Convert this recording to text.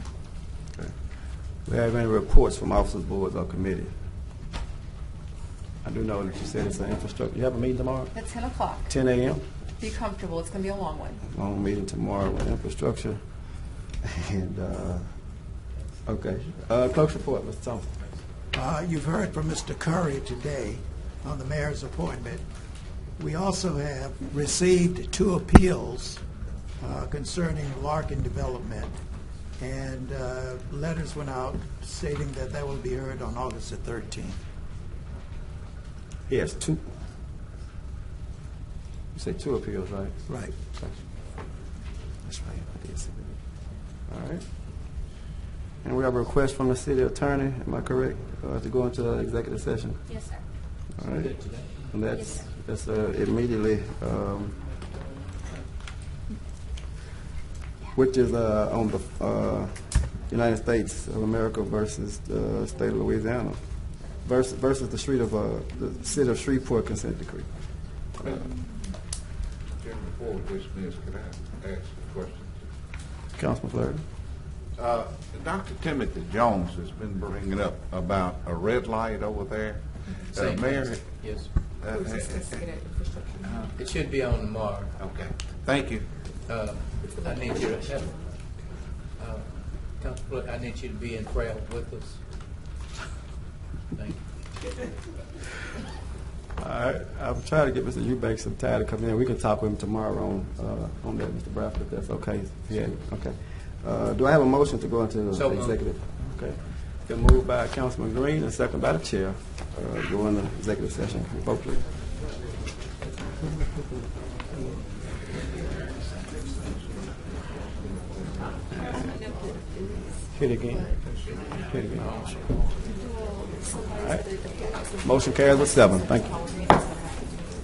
We have any reports from officers, boards, or committee? I do know that you said it's an infrastructure, you have a meeting tomorrow, At 10 o'clock. ten AM? Be comfortable, it's going to be a long one. Long meeting tomorrow with infrastructure. And, uh, okay, uh, clerk's report, Mr. Thompson. Uh, You've heard from Mr. Curry today on the mayor's appointment. We also have received two appeals uh, concerning Larkin Development, and uh, letters went out stating that that will be heard on August the 13th. He has two. You said two appeals, right? Right. That's right, I did see that. All right. And we have a request from the city attorney, am I correct, uh, to go into executive session? Yes, sir. All right. And that's, that's uh, immediately, um, which is uh, on the uh, United States of America versus the state of Louisiana, versus, versus the street of, uh, the city of Shreveport consent decree. Chairman, before we dismiss, can I ask a question? Councilman Flurry? Uh, Dr. Timothy Jones has been bringing up about a red light over there. Uh, Same. Mayor, Yes. uh, uh, It should be on tomorrow. okay, thank you. Uh, I need your help. Uh, Council Clerk, I need you to be in prayer with us. Thank you. All right, I'll try to get Mr. Eubanks some time to come in. We can talk with him tomorrow on, uh, on that, Mr. Bradford, if that's okay. Yeah, okay. Uh, do I have a motion to go into So moved. executive? Okay. Been moved by Councilman Green and second by the chair, uh, go into executive session. Vote please. Hit again. Hit again. All right. Motion carries with seven. Thank you.